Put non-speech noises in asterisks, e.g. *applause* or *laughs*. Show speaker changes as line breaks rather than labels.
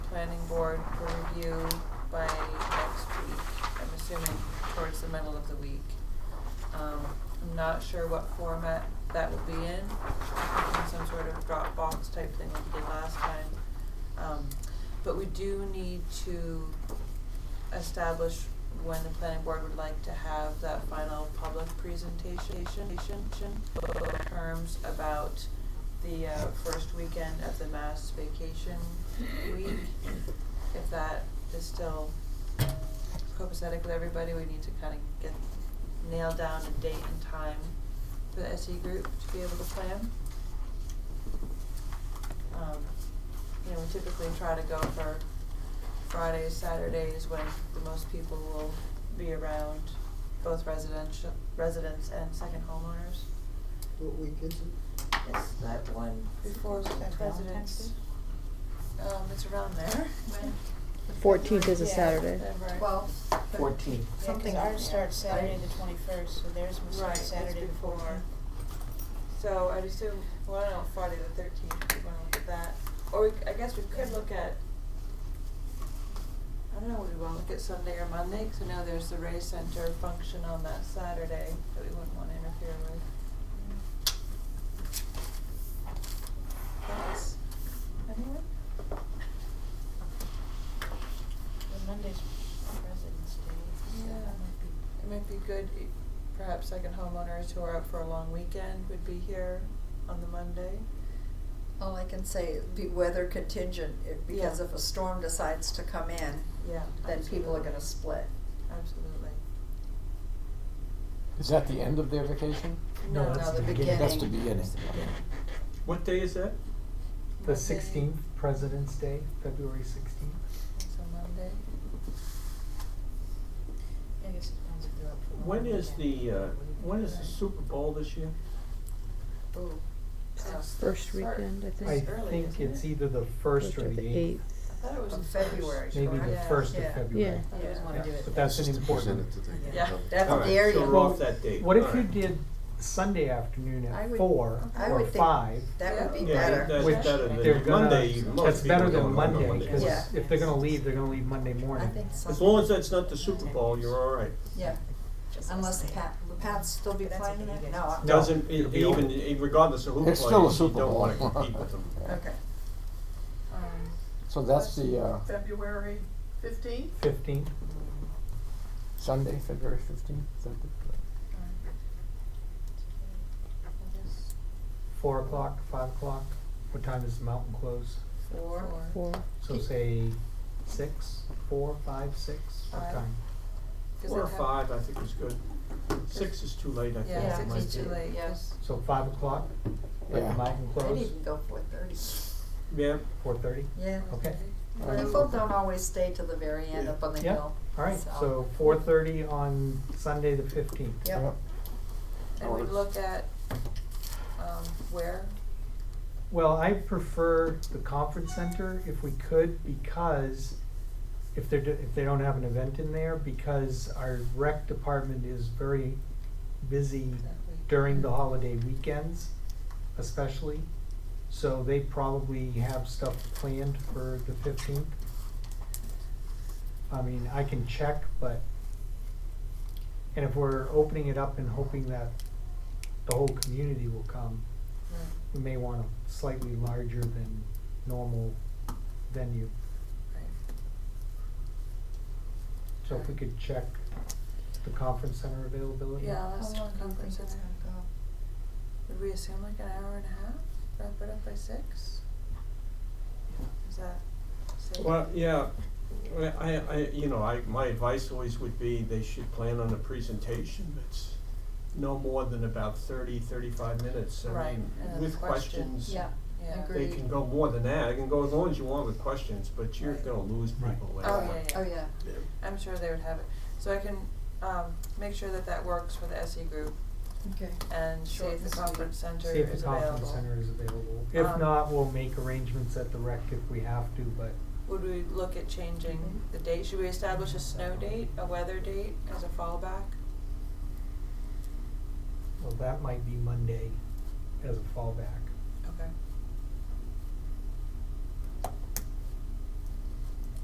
planning board for review by next week, I'm assuming towards the middle of the week. Um, I'm not sure what format that will be in, in some sort of Dropbox type thing like we did last time. Um, but we do need to establish when the planning board would like to have that final public presentation, terms about the uh, first weekend of the mass vacation week. If that is still copacetic with everybody, we need to kind of get, nail down a date and time for the SE group to be able to plan. Um, you know, we typically try to go for Fridays, Saturdays, when the most people will be around, both residential, residents and second homeowners.
What week is it?
It's that one before
Valentine's
residents. Um, it's around there.
When?
Fourteenth is a
Yeah.
Saturday.
Whatever.
Twelve.
Fourteen.
Something ours starts Saturday the twenty-first, so theirs must
Right,
start
it's
Saturday the
before.
fourteenth.
So I'd assume, well, I don't know, Friday the thirteenth, we wanna look at that, or we, c- I guess we could look at, I don't know, would we wanna look at Sunday or Monday, 'cause I know there's the Ray Center function on that Saturday that we wouldn't wanna interfere with. Thoughts, anyone?
Well, Monday's President's Day, so
Yeah.
that might be.
It might be good, i- perhaps second homeowners who are out for a long weekend would be here on the Monday.
All I can say, is be weather contingent, if- because
Yeah.
if a storm decides to come in,
Yeah.
then people are
absolutely.
gonna split.
Absolutely.
Is that the end of their vacation?
No,
no, the
that's
That's the
Beginning.
beginning.
It's the beginning.
What day is that?
Monday.
The sixteenth, President's Day, February sixteenth.
It's a Monday.
I guess it depends if they're up for.
When
Memorial
is
Day.
the, uh, when is the Super Bowl this year?
Ooh.
Sounds
First
Sorry.
weekend, I think.
I
It's Uh, early,
think
isn't
it's
it?
either the first or the eighth,
I thought it was
Of
the
February,
first.
maybe the
Yeah.
first of
Yeah.
February.
Yeah.
I always wanna
Yeah.
do it.
But that's an important.
Yeah.
That's
All right,
the area.
So we're off that date.
What if
All
you
right.
did Sunday afternoon
I
at
would-
four
I
or
would think-
five?
That would be
Yeah,
Yeah, that-
better.
that's
Which
better
They're
than
gonna-
Monday. Most
That's
people
better
don't
than
go on
Monday,
Mondays.
cause
Yeah.
if they're gonna leave, they're gonna leave Monday
I
morning.
think so.
As long as that's not the Super Bowl, you're all right.
Yeah, unless the Pat, will Pat still be
But that's
playing
okay, you
that? No.
guys-
I-
No.
Doesn't, e-
it'll be
even,
over.
e- regardless of who
It's still a
plays, you
Super
don't
Bowl.
wanna compete with them.
Okay.
Um,
*laughs* So that's the uh,
February fifteenth?
Fifteenth,
Sunday, February fifteenth.
I guess
four o'clock, five o'clock, what time does the mountain close?
Four.
Four.
So say six, four, five, six, what
Five.
time?
'Cause
Four or
it hap-
five, I think is good. Six is too late, I think.
Yeah,
Yeah,
six
Might
is
be-
too late,
Yeah.
yes.
So five o'clock, let
Yeah.
the mountain
Maybe
close,
you can go four thirty.
Yeah,
four thirty,
Yeah.
Oh.
okay,
Right.
People
Um,
don't always stay to the very end
Yeah.
up on the
Yeah.
hill.
alright, so four thirty on Sunday the fifteenth.
Yep,
And we
oh,
Hours.
look at, um, where,
Well, I prefer the conference center if we could, because if they're, do- if they don't have an event in there, because our rec department is very busy
that week.
Mm. during the holiday weekends especially. So they probably have stuff planned for the fifteenth. I mean, I can check, but, and if we're opening it up and hoping that the whole community will come,
Right.
we may want a slightly larger than normal venue.
Right.
So if we could check the conference center availability.
Yeah,
how
last
long do you think
conference
it's gonna
center.
go?
Would we assume like an hour and a half, wrap it up by six? Is that safe?
well, yeah, Well, I, I, you know, I, my advice always would be they should plan on a presentation that's no more than about thirty, thirty-five minutes. I
Right,
mean,
and then the
With
question.
questions.
yeah.
Yeah.
agree.
They can go more than that, They can go as long as you want with questions, but you're
Right.
gonna lose
Right.
people later.
Oh, yeah, yeah.
Oh, yeah.
I'm sure they would have it. So I can, um, make sure that that works for the SE group
Okay.
and see
Short
if
and
the
sweet.
conference center
See if
is
the
available.
conference center is available. If
Um,
not, we'll make arrangements at the rec if we have to, but
Would we look at changing the date? Should we establish a snow date, a weather date as a fallback?
Well, that might be Monday as a fallback.
Okay.